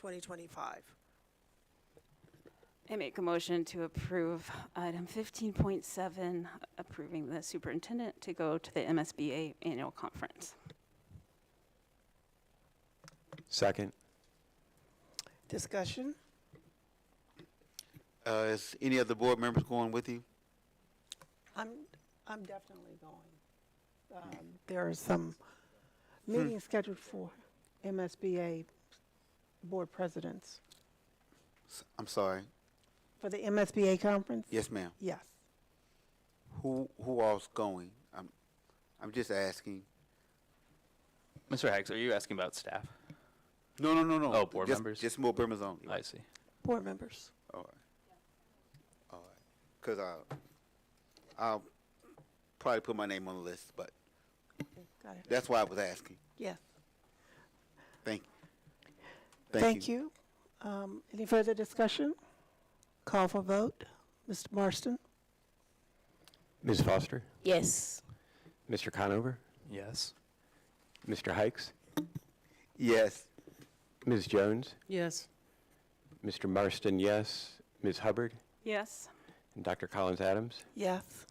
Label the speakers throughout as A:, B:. A: 2025.
B: I make a motion to approve item 15.7, approving the superintendent to go to the MSBA annual conference.
C: Second.
A: Discussion?
D: Uh, is any of the board members going with you?
A: I'm, I'm definitely going. Um, There are some meetings scheduled for MSBA board presidents,
D: S- I'm sorry.
A: for the MSBA conference?
D: Yes, ma'am.
A: Yes.
D: Who, who all's going? I'm, I'm just asking.
E: Mr. Hags, are you asking about staff?
D: No, no, no, no.
E: Oh, board
D: Just-
E: members?
D: Just more members only.
E: I see.
A: Board members.
D: All right. All right. Cause I, I'll probably put my name on the list, but
A: Got it.
D: that's why I was asking.
A: Yes.
D: Thank,
A: Thank you. Um, Any further discussion? Call for vote. Mr. Marston?
C: Ms. Foster?
F: Yes.
C: Mr. Conover?
E: Yes.
C: Mr. Hikes?
D: Yes.
C: Ms. Jones?
F: Yes.
C: Mr. Marston, yes. Ms. Hubbard?
B: Yes?
C: And Dr. Collins Adams?
A: Yes.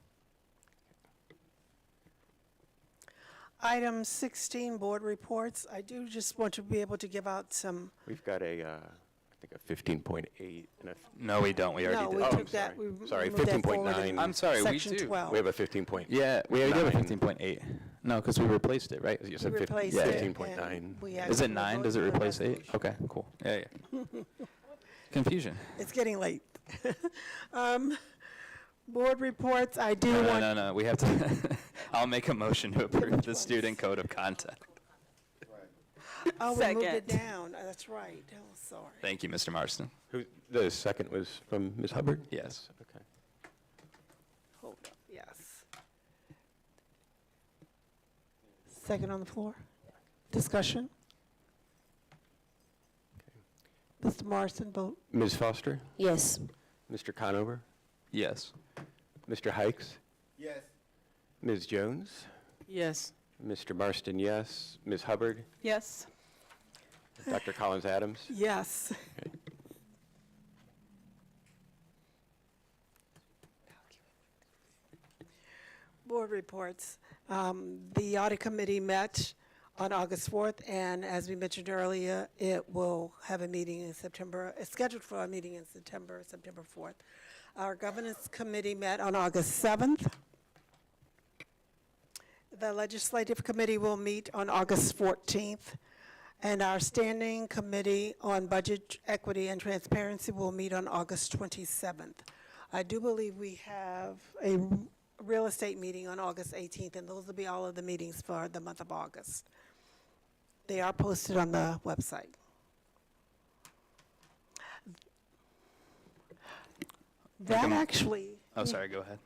A: Item 16, board reports. I do just want to be able to give out some,
C: We've got a, uh, I think a 15.8 and a, Oh, f-
E: No, we don't. We
A: no,
E: already
A: we
E: did.
C: I'm
A: took that, we
C: sorry.
A: moved
C: Sorry,
A: that forward
C: 15.9.
A: in
E: I'm sorry, we
A: section
E: do.
A: 12.
C: we have a 15 point.
E: Yeah, we already have a
C: Nine.
E: fifteen point eight. No, because we replaced it, right?
C: You
A: We
C: said fif-
A: replaced
E: yeah,
A: it.
E: yeah.
A: and
C: 15.9.
A: we
E: Is
A: actually
E: it nine? Does it
A: voted on
E: replace eight?
A: resolution.
E: Okay, cool. Yeah, yeah. Confusion.
A: It's getting late. Um, Board reports, I do
E: No, no,
A: want.
E: no, no, we have to, I'll make a motion to approve the
A: ones?
E: student code of conduct.
A: Oh, we moved it
B: Second.
A: down. Uh, That's right. Oh, sorry.
E: Thank you, Mr. Marston.
C: Who- The second was from Ms. Hubbard?
E: Yes.
C: Okay.
A: Hold up, yes. Second on the floor. Discussion? Mr. Morrison, vote
C: Ms. Foster?
F: Yes.
C: Mr. Conover?
E: Yes.
C: Mr. Hikes?
D: Yes.
C: Ms. Jones?
F: Yes.
C: Mr. Marston, yes. Ms. Hubbard?
B: Yes.
C: Dr. Collins Adams?
A: yes. Board reports. Um, The audit committee met on August 4th, and as we mentioned earlier, it will have a meeting in September, it's scheduled for a meeting in September, September 4th. Our governance committee met on August 7th. The legislative committee will meet on August 14th, and our standing committee on budget equity and transparency will meet on August 27th. I do believe we have a real estate meeting on August 18th, and those will be all of the meetings for the month of August. They are posted on the website. That
E: m-
A: actually.
E: Oh, sorry, go ahead.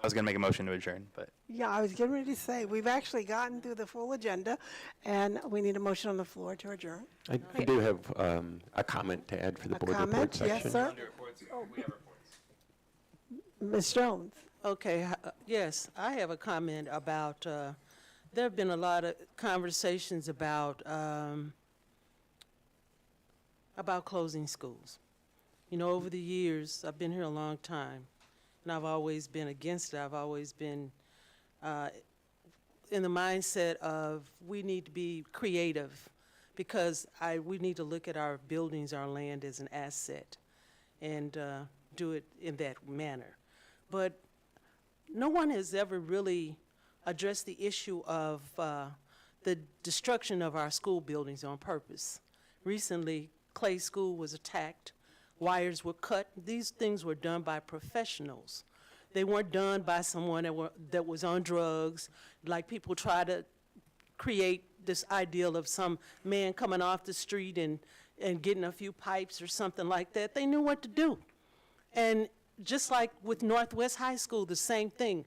E: I was gonna make a motion to adjourn, but
A: Yeah, I was getting ready to say, we've actually gotten through the full agenda, and we need a motion on the floor to adjourn.
C: I I do have um, a comment to add for the
A: A
C: board report
A: comment?
C: section.
A: Yes, sir? Ms. Jones?
F: Okay, h- uh, yes, I have a comment about, uh, there have been a lot of conversations about, um, about closing schools. You know, over the years, I've been here a long time, and I've always been against it. I've always been uh, in the mindset of, we need to be creative, because I, we need to look at our buildings, our land as an asset, and uh, do it in that manner. But no one has ever really addressed the issue of uh, the destruction of our school buildings on purpose. Recently, Clay School was attacked, wires were cut. These things were done by professionals. They weren't done by someone that, were, that was on drugs, like people try to create this ideal of some man coming off the street and, and getting a few pipes or something like that. They knew what to do. And just like with Northwest High School, the same thing.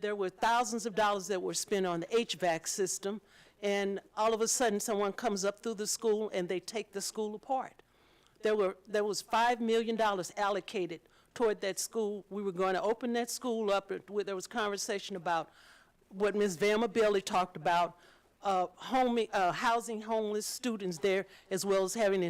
F: There were thousands of dollars that were spent on the HVAC system, and all of a sudden, someone comes up through the school and they take the school apart. There were, there was $5 million allocated toward that school. We were going to open that school up. It- There was conversation about what Ms. Valma Bailey talked about, uh, homing, uh, housing homeless students there, as well as having